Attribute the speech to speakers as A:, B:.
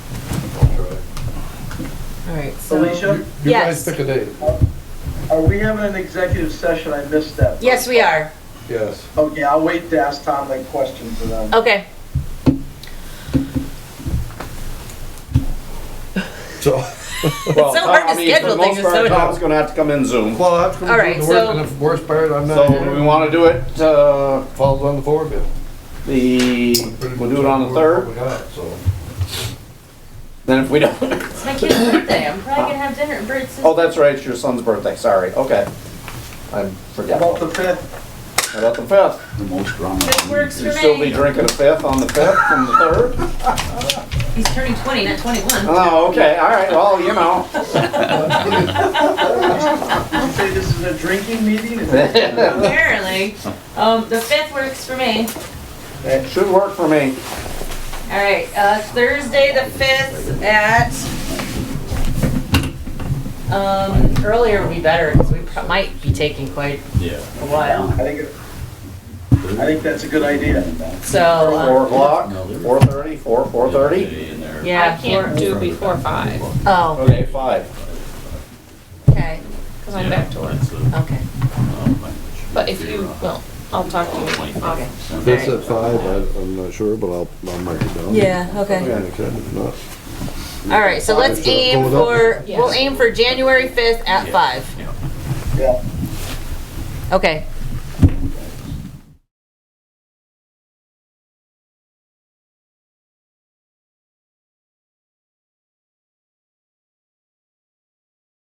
A: All right, so.
B: Alicia,
C: You guys
A: Yes.
C: pick a date,
B: are we having an executive session? I missed that.
A: Yes, we are.
C: yes.
B: Okay, I'll wait to ask Tom that question for them.
A: Okay.
C: So,
D: Well,
A: so hard to
D: I mean,
A: schedule
D: for the
A: things
D: most
A: with
D: part,
A: so-
D: Tom's gonna have to come in Zoom.
C: well, that's gonna
A: All
C: be
A: right,
C: the
A: so-
C: worst, and the worst part, I'm not
D: So
C: here.
D: we wanna do it, uh,
C: Falls on the floor, bill.
D: the, we'll do it on the third,
C: We got, so.
D: then if we don't,
E: It's my kid's birthday. I'm probably gonna have dinner at Bert's.
D: oh, that's right, it's your son's birthday, sorry, okay. I forgot
B: About the fifth,
D: about the fifth.
F: The most drama.
E: It works for
D: You still be
E: me.
D: drinking a fifth on the fifth from the third?
E: He's turning twenty, not twenty-one.
D: Oh, okay, all right, well, you know. Oh.
B: you say this is a drinking meeting? Is that-
D: It
E: Apparently. Um, the fifth works for me.
D: should work for me.
E: All right, uh, Thursday the fifth at,
A: Um, earlier would be better, because we pro- might be taking quite
F: Yeah.
A: a while.
B: I think, it- I think that's a good idea.
A: So, um,
E: uh,
D: Four o'clock, four thirty, four, four thirty?
A: yeah.
G: I can't
A: we're-
G: do before five,
A: Oh,
D: Okay, five.
A: okay,
G: because I'm back to work.
A: okay.
G: But if you, well, I'll talk to you
A: Okay.
F: This
C: This at five, I- I'm not sure, but I'll, I'll mark it down.
A: Yeah, okay.
C: Yeah, okay, not-
A: All right, so let's
C: Obviously,
A: aim
C: going up.
A: for, we'll aim for January 5th at 5.
B: Yeah.
A: Okay,